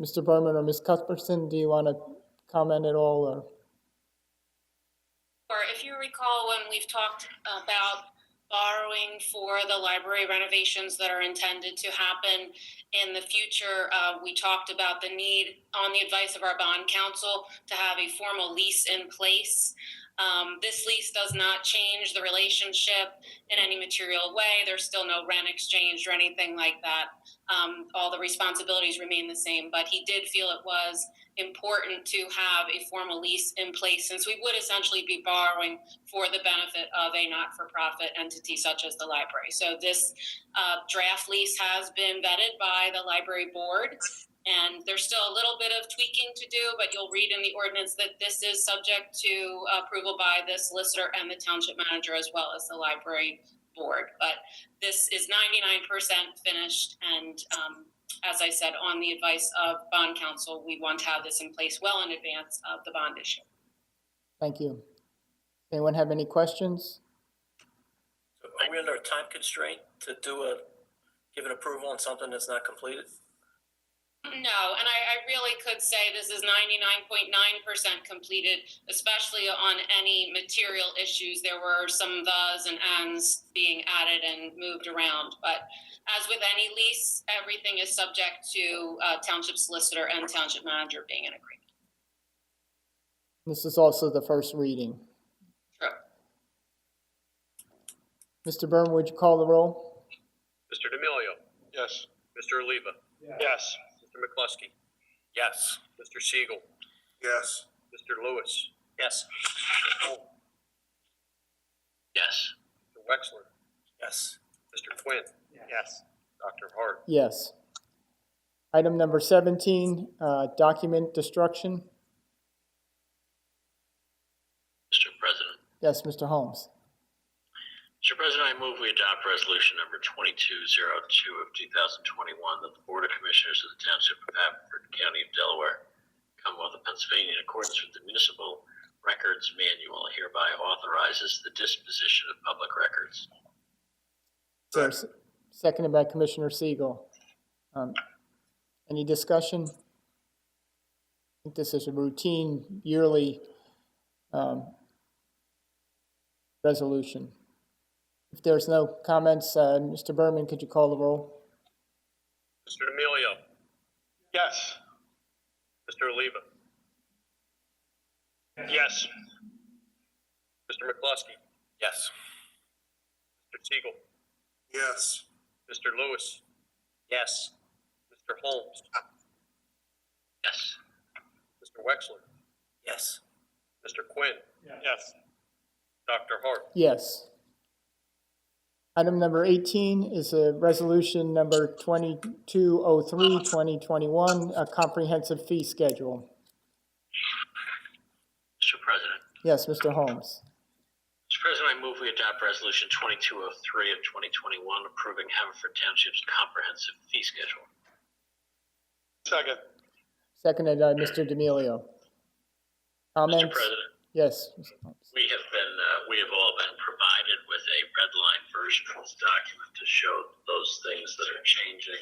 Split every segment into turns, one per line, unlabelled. Mr. Berman or Ms. Cuthbertson, do you want to comment at all, or?
Or if you recall, when we've talked about borrowing for the library renovations that are intended to happen in the future, uh, we talked about the need, on the advice of our bond counsel, to have a formal lease in place. Um, this lease does not change the relationship in any material way. There's still no rent exchanged or anything like that. Um, all the responsibilities remain the same, but he did feel it was important to have a formal lease in place since we would essentially be borrowing for the benefit of a not-for-profit entity such as the library. So this uh, draft lease has been vetted by the library board. And there's still a little bit of tweaking to do, but you'll read in the ordinance that this is subject to approval by the solicitor and the township manager as well as the library board. But this is 99% finished and um, as I said, on the advice of bond counsel, we want to have this in place well in advance of the bond issue.
Thank you. Anyone have any questions?
Are we under a time constraint to do a, give an approval on something that's not completed?
No, and I, I really could say this is ninety-nine point nine percent completed, especially on any material issues. There were some thes and ands being added and moved around, but as with any lease, everything is subject to uh, township solicitor and township manager being in agreement.
This is also the first reading.
True.
Mr. Berman, would you call the roll?
Mr. D'Amelio.
Yes.
Mr. Oliva.
Yes.
Mr. McCluskey.
Yes.
Mr. Siegel.
Yes.
Mr. Lewis.
Yes.
Yes. Mr. Wexler.
Yes.
Mr. Quinn.
Yes.
Dr. Hart.
Yes. Item number 17, uh, document destruction.
Mr. President.
Yes, Mr. Holmes.
Mr. President, I move we adopt resolution number twenty-two zero two of two thousand twenty-one that the Board of Commissioners of the Township of Haverford County of Delaware, Commonwealth of Pennsylvania, in accordance with the Municipal Records Manual hereby authorizes the disposition of public records.
There's- Seconded by Commissioner Siegel. Um, Any discussion? I think this is a routine yearly um, resolution. If there's no comments, uh, Mr. Berman, could you call the roll?
Mr. D'Amelio.
Yes.
Mr. Oliva.
Yes.
Mr. McCluskey.
Yes.
Mr. Siegel.
Yes.
Mr. Lewis.
Yes.
Mr. Holmes.
Yes.
Mr. Wexler.
Yes.
Mr. Quinn.
Yes.
Dr. Hart.
Yes. Item number 18 is a resolution number 2203-2021, a comprehensive fee schedule.
Mr. President.
Yes, Mr. Holmes.
Mr. President, I move we adopt resolution twenty-two oh three of twenty twenty-one approving Haverford Township's comprehensive fee schedule.
Second.
Seconded by Mr. D'Amelio. Comments?
Mr. President.
Yes. Mr. Holmes.
We have been, uh, we have all been provided with a red line version of this document to show those things that are changing.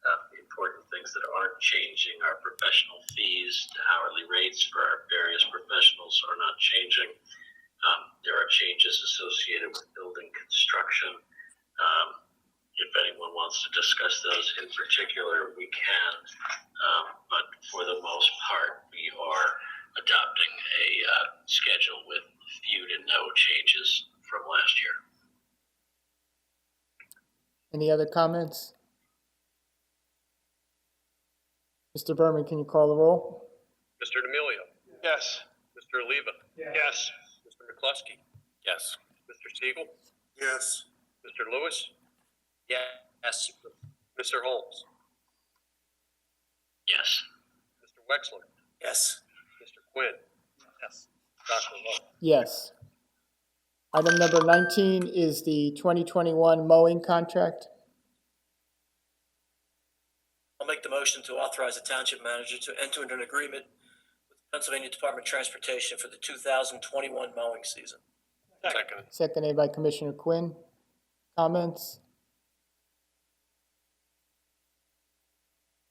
Uh, the important things that aren't changing are professional fees, the hourly rates for our various professionals are not changing. Um, there are changes associated with building construction. Um, if anyone wants to discuss those in particular, we can. Um, but for the most part, we are adopting a uh, schedule with few to no changes from last year.
Any other comments? Mr. Berman, can you call the roll?
Mr. D'Amelio.
Yes.
Mr. Oliva.
Yes.
Mr. McCluskey.
Yes.
Mr. Siegel.
Yes.
Mr. Lewis.
Yes.
Mr. Holmes.
Yes.
Mr. Wexler.
Yes.
Mr. Quinn.
Yes.
Dr. Hart.
Yes. Item number 19 is the 2021 mowing contract.
I'll make the motion to authorize the township manager to enter into an agreement with Pennsylvania Department of Transportation for the two thousand twenty-one mowing season.
Second.
Seconded by Commissioner Quinn. Comments?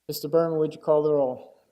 Mr. Berman, would you call the roll?